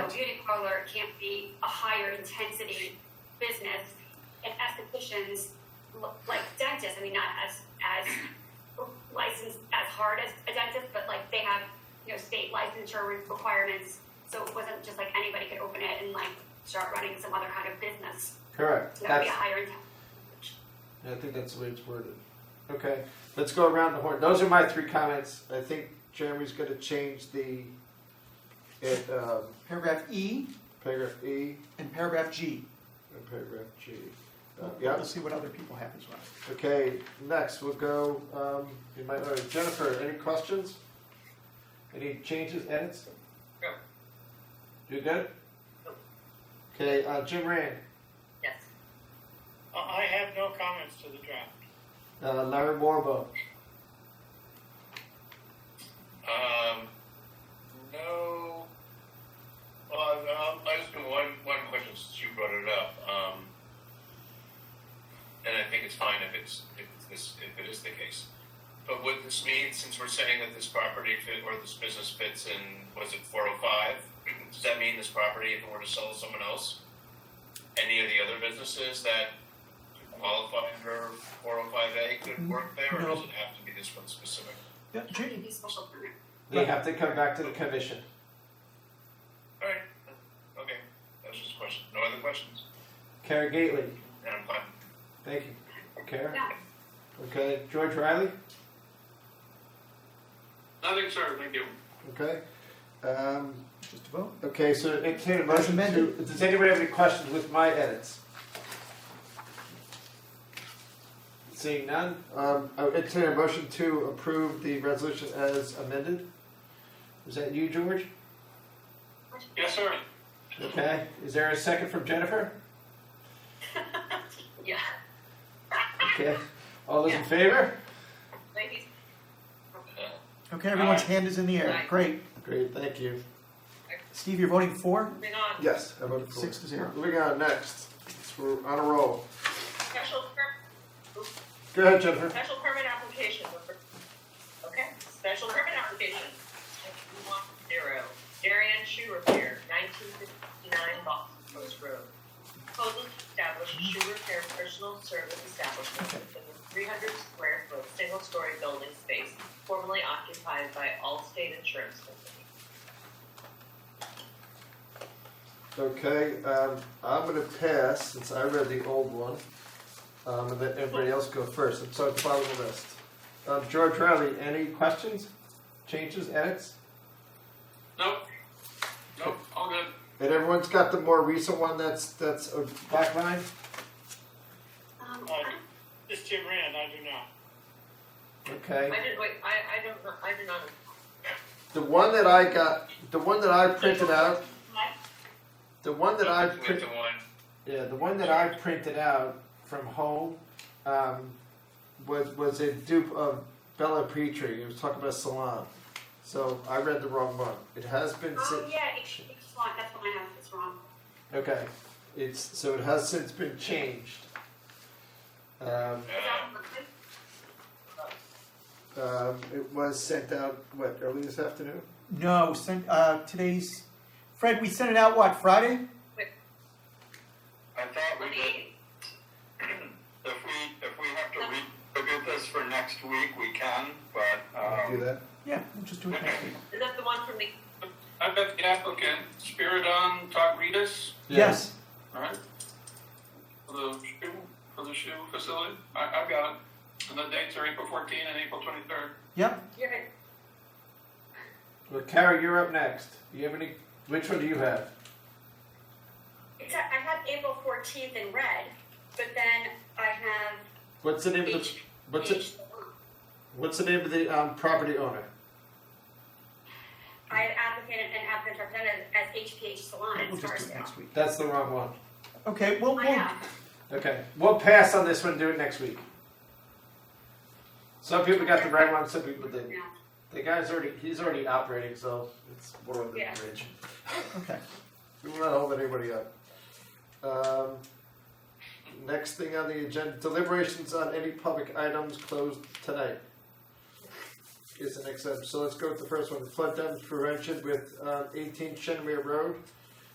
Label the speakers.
Speaker 1: beauty parlor can't be a higher intensity business. And estheticians, l- like dentists, I mean, not as, as licensed, as hard as a dentist, but like they have, you know, state licensure re- requirements. So it wasn't just like anybody could open it and like start running some other kind of business.
Speaker 2: Correct.
Speaker 1: That would be
Speaker 2: That's,
Speaker 1: a higher intensity.
Speaker 2: I think that's the way it's worded. Okay, let's go around the horn. Those are my three comments. I think Jeremy's going to change the it, um,
Speaker 3: Paragraph E
Speaker 2: paragraph E
Speaker 3: and paragraph G.
Speaker 2: and paragraph G. Uh,
Speaker 3: We'll-
Speaker 2: yeah.
Speaker 3: We'll see what other people have as well.
Speaker 2: Okay, next we'll go um, in my order. Jennifer, any questions? Any changes, edits?
Speaker 4: No.
Speaker 2: You good?
Speaker 4: No.
Speaker 2: Okay, uh, Jim Rand,
Speaker 4: Yes.
Speaker 5: I I have no comments to the draft.
Speaker 2: uh, Larry Morbo,
Speaker 6: Um, no. Well, I, um, I just got one one question since you brought it up. Um, and I think it's fine if it's if it's this if it is the case. But would this mean since we're saying that this property fit or this business fits in was it four hundred five? Does that mean this property, if it were to sell to someone else, any of the other businesses that qualify for four hundred five A could work there, or
Speaker 3: No.
Speaker 6: does it have to be this one specific?
Speaker 3: Yeah,
Speaker 1: It
Speaker 3: G-
Speaker 1: would be special permit.
Speaker 2: they have to come back to the commission.
Speaker 6: Alright, okay, that was just a question, no other questions,
Speaker 2: Kara Gately,
Speaker 6: and I'm fine.
Speaker 2: thank you. Kara?
Speaker 1: Yeah.
Speaker 2: Okay, George Riley?
Speaker 6: Nothing, sir, thank you.
Speaker 2: Okay. Um,
Speaker 3: Just a vote.
Speaker 2: okay, so entertain a motion to,
Speaker 3: amended.
Speaker 2: does anybody have any questions with my edits? Seeing none, um, I would entertain a motion to approve the resolution as amended. Is that you, George?
Speaker 6: Yes, sir.
Speaker 2: Okay, is there a second from Jennifer?
Speaker 4: Yeah.
Speaker 2: Okay, all those in favor?
Speaker 4: Ladies.
Speaker 6: Uh-huh.
Speaker 3: Okay, everyone's
Speaker 6: Aye.
Speaker 3: hand is in the air.
Speaker 4: Aye.
Speaker 3: Great.
Speaker 2: Great, thank you.
Speaker 3: Steve, you're voting for?
Speaker 4: Moving on.
Speaker 2: Yes, I voted
Speaker 3: Six to zero.
Speaker 2: Moving on, next, we're on a roll.
Speaker 4: Special per,
Speaker 2: Go ahead, Jennifer.
Speaker 4: special permit application. Okay, special permit application. One Zero. Darian Shoe Repair, nineteen fifty-nine Boston Post Road. Proposal to establish a shoe repair personal service establishment within a three hundred square foot, single-story building space formerly occupied by Allstate Insurance Company.
Speaker 2: Okay, um, I'm gonna pass, since I read the old one, um, and let everybody else go first, I'm so following the list. Um, George Riley, any questions, changes, edits?
Speaker 6: Nope, nope, all good.
Speaker 2: And everyone's got the more recent one, that's, that's a black line?
Speaker 1: Um,
Speaker 5: Uh, This Jim Rand, I do not.
Speaker 2: Okay,
Speaker 4: I did, wait, I, I don't, know- I did not
Speaker 2: the one that I got, the one that I printed out,
Speaker 4: Mike?
Speaker 2: the one that I
Speaker 6: With
Speaker 2: printed,
Speaker 6: the one,
Speaker 2: yeah, the one that I printed out from home, um, was, was a dupe of Bella Petrie, it was talking about salon. So I read the wrong one, it has been since.
Speaker 1: Oh, yeah, it's, it's wrong. That's what I have. It's wrong.
Speaker 2: Okay, it's, so it has since been changed.
Speaker 1: Is
Speaker 2: Um,
Speaker 6: uh,
Speaker 1: that Brooklyn?
Speaker 2: um, it was sent out, what, early this afternoon?
Speaker 3: No, sent, uh, today's, Fred, we sent it out, what, Friday?
Speaker 7: I thought we did,
Speaker 4: Twenty-eight.
Speaker 7: if we, if we have to relook at this for next week, we can, but,
Speaker 2: I'll do
Speaker 7: um,
Speaker 2: that.
Speaker 3: Yeah, we'll just do it next week.
Speaker 4: Is that the one from the
Speaker 6: I bet the applicant, Spiridon Tagridis,
Speaker 3: Yes.
Speaker 6: alright? For the shoe, for the shoe facility, I, I've got it, and the dates are April fourteen and April twenty-third.
Speaker 3: Yep.
Speaker 4: Yeah.
Speaker 2: Well, Kara, you're up next. Do you have any, which one do you have?
Speaker 1: It's, I have April 14th in red, but then I have
Speaker 2: What's the name of the,
Speaker 1: H.
Speaker 2: what's
Speaker 1: H.
Speaker 2: it, what's the name of the, um, property owner?
Speaker 1: I have applicant and applicant representative as HPH Salon.
Speaker 3: We'll
Speaker 1: as far
Speaker 3: just
Speaker 1: as
Speaker 3: do it next week.
Speaker 2: That's the wrong one.
Speaker 3: Okay, we'll,
Speaker 1: I
Speaker 3: we'll,
Speaker 1: have.
Speaker 2: Okay, we'll pass on this one, do it next week. Some people got the right one, some people didn't.
Speaker 1: Yeah.
Speaker 2: The guy's already, he's already operating, so it's one of the
Speaker 1: Yeah.
Speaker 2: bridge.
Speaker 3: okay.
Speaker 2: We will not hold anybody up. Um, next thing on the agenda, deliberations on any public items closed tonight. uh, Is the next item, so let's go with the first one, flood damage prevention with, um, eighteen Shenway Road.